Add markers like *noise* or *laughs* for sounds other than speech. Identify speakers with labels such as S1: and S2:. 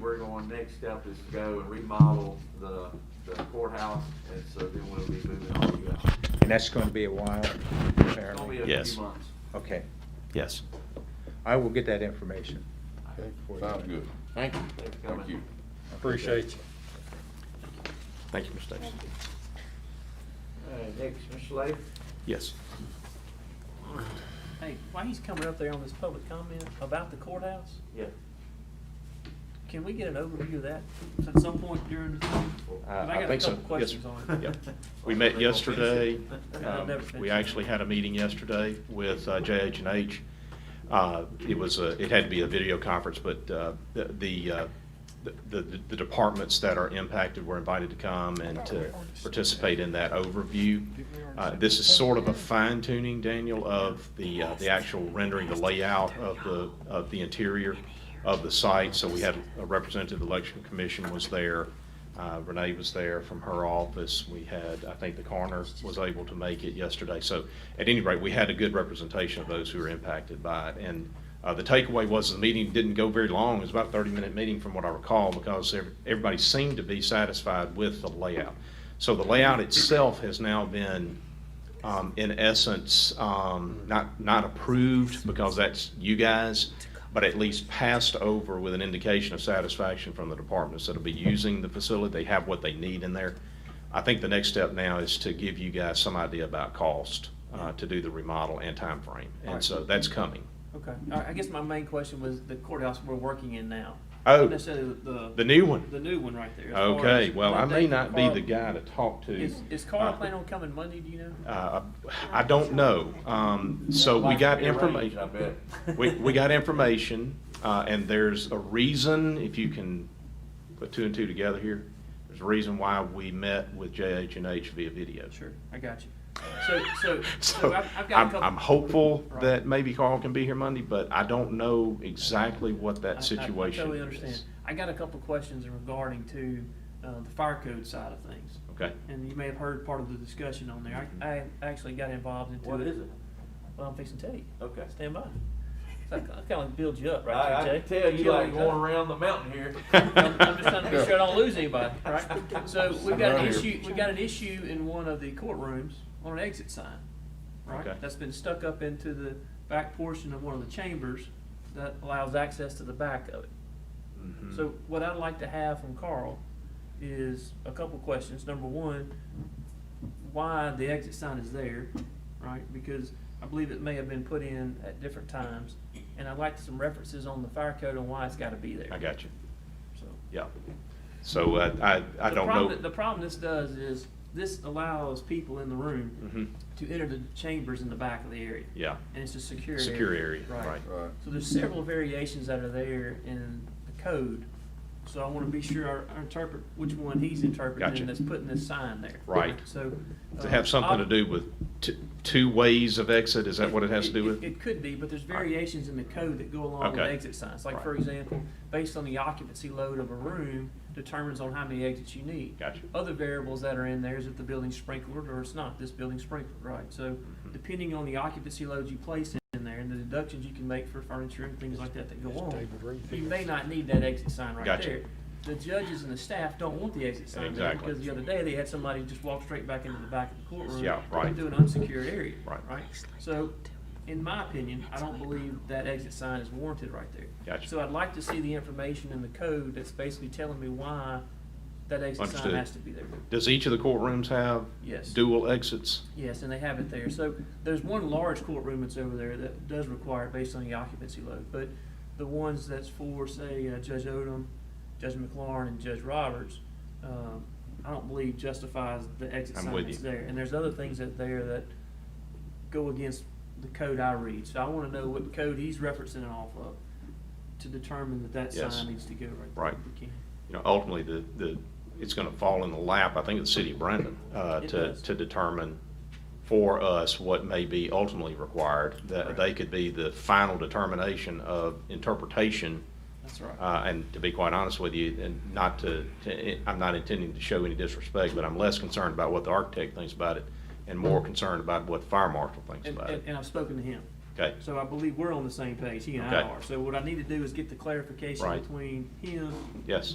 S1: we're going, next step is to go and remodel the the courthouse, and so then we'll be moving on to you guys.
S2: And that's going to be a while,
S1: It's gonna be
S2: apparently.
S1: a
S3: Yes.
S1: few months.
S2: Okay,
S3: Yes.
S2: I will get that information.
S4: Okay,
S2: for you.
S4: Sounds good.
S5: Thank you.
S1: Thanks for
S4: Thank
S1: coming.
S4: you.
S5: Appreciate you.
S3: Thank you, Ms. Davis.
S1: All right, next, Mr. Slade?
S3: Yes.
S6: Hey, while he's coming up there on this public comment about the courthouse,
S1: Yeah.
S6: can we get an overview of that at some point during? the
S3: Uh,
S6: I got a
S3: think so.
S6: couple
S3: Yes, sir.
S6: questions on it.
S3: *laughs* Yep. We met yesterday.
S6: Yeah, I've never
S3: Um,
S6: finished
S3: We
S6: it.
S3: actually had a meeting yesterday with uh, JH&H. Uh, It was, a- it had to be a video conference, but uh, the, the, uh, the the departments that are impacted were invited to come and to participate in that overview. Uh, This is sort of a fine tuning, Daniel, of the, uh, the actual rendering, the layout of the, of the interior of the site. So we had a representative election commission was there. Uh, Renee was there from her office. We had, I think the coroner was able to make it yesterday. So at any rate, we had a good representation of those who were impacted by it. And uh, the takeaway was the meeting didn't go very long. It was about a 30-minute meeting from what I recall because ev- everybody seemed to be satisfied with the layout. So the layout itself has now been, um, in essence, um, not, not approved because that's you guys, but at least passed over with an indication of satisfaction from the departments that'll be using the facility. They have what they need in there. I think the next step now is to give you guys some idea about cost, uh, to do the remodel and time frame, And so that's coming.
S6: Okay, I, I guess my main question was the courthouse we're working in now.
S3: Oh.
S6: Not Necessarily the.
S3: The new one.
S6: The new one right there. as far
S3: Okay,
S6: as
S3: well, I
S6: updating
S3: may not be
S6: Carl.
S3: the guy to talk to.
S6: Is, is Carl
S3: Uh,
S6: planning on coming Monday, do you know?
S3: Uh, I don't know. Um, so we got information.
S1: I bet.
S3: We, we got information, uh, and there's a reason, if you can put two and two together here, there's a reason why we met with JH and H via video.
S6: Sure, I
S3: *laughs*
S6: got you. So,
S3: So
S6: so, so I've, I've got a
S3: I'm,
S6: couple.
S3: I'm hopeful
S6: Right.
S3: that maybe Carl can be here Monday, but I don't know exactly what
S6: I- I-
S3: that situation
S6: I totally
S3: is.
S6: understand. I got a couple questions regarding to, uh, the fire code side of things.
S3: Okay.
S6: And you may have heard part of the discussion on there. I, I actually got involved
S1: *laughs*
S6: into.
S1: What is it?
S6: Well, I'm fixing to tell you.
S1: Okay.
S6: Stand by. So I kind of build you up, right?
S1: I, I
S6: there,
S1: can
S6: Jay?
S1: tell you
S6: Killing
S1: like uh,
S6: me,
S1: going
S6: huh?
S1: around the mountain
S3: *laughs*
S1: here.
S6: I'm I'm just trying to make sure I don't
S1: *laughs*
S6: lose anybody, right? So we've got an
S4: Right here.
S6: issue, we've got an issue in one of the courtrooms on an exit sign,
S3: Okay.
S6: right? That's been stuck up into the back portion of one of the chambers that allows access to the back of it.
S3: Mhm.
S6: So what I'd like to have from Carl is a couple questions. Number one, why the exit sign is there, right? Because I believe it may have been put in at different times. And I'd like some references on the fire code and why it's gotta be there.
S3: I got you.
S6: So-
S3: Yeah. So uh, I, I
S6: The
S3: don't
S6: problem-
S3: know.
S6: The problem this does is, this allows people in the room
S3: Mhm.
S6: to enter the chambers in the back of the area.
S3: Yeah.
S6: And it's a secure area.
S3: Secure area, right.
S4: Right.
S6: So there's several variations that are there in the code, so I wanna be sure I I interpret which one he's interpreting
S3: Gotcha.
S6: and that's putting this sign there.
S3: Right.
S6: So.
S3: To
S6: uh,
S3: have something to do with t- two ways of exit, is that what it has to do
S6: it-
S3: with?
S6: It could be, but there's
S3: All right.
S6: variations in the code that go along with
S3: Okay.
S6: exit signs. Like,
S3: Right.
S6: for example, based on the occupancy load of a room determines on how many exits you need.
S3: Gotcha.
S6: Other variables that are in there is if the building's sprinkled or it's not, this building's sprinkled, right? So
S3: Mm-hmm.
S6: depending on the occupancy load you place in there and the deductions you can make for furniture and things like that that go on, you may not need that exit sign right
S3: Gotcha.
S6: there. The judges and the staff don't want the exit sign there
S3: Exactly.
S6: because the other day they had somebody just walk straight back into the back of the courtroom.
S3: Yeah, right.
S6: Through an unsecured area.
S3: Right.
S6: Right? So, in my opinion, I don't believe that exit sign is warranted right there.
S3: Gotcha.
S6: So I'd like to see the information in the code that's basically telling me why that exit sign
S3: Understood.
S6: has to be there.
S3: Does each of the courtrooms have?
S6: Yes.
S3: Dual exits?
S6: Yes, and they have it there. So there's one large courtroom that's over there that does require it based on the occupancy load. But the ones that's for, say, uh, Judge Odom, Judge McLaurin, and Judge Roberts, um, I don't believe justifies the exit
S3: I'm
S6: sign
S3: with
S6: that's
S3: you.
S6: there. And there's other things that there that go against the code I read. So I wanna know what code he's referencing it off of to determine that that
S3: Yes.
S6: sign needs to go right there.
S3: Right.
S6: if we can.
S3: You know, ultimately, the, the, it's gonna fall in the lap, I think, of the city of Brandon, uh,
S6: It
S3: to,
S6: does.
S3: to determine for us what may be ultimately required. That
S6: Correct.
S3: they could be the final determination of interpretation
S6: That's right.
S3: Uh, and to be quite honest with you, and not to, to, I'm not intending to show any disrespect, but I'm less concerned about what the architect thinks about it and more concerned about what the fire marshal thinks
S6: And,
S3: about
S6: and,
S3: it.
S6: and I've spoken to him.
S3: Okay,
S6: So I believe we're on the same page, he and I
S3: Okay.
S6: are. So what I need to do is get the clarification
S3: Right.
S6: between him
S3: yes.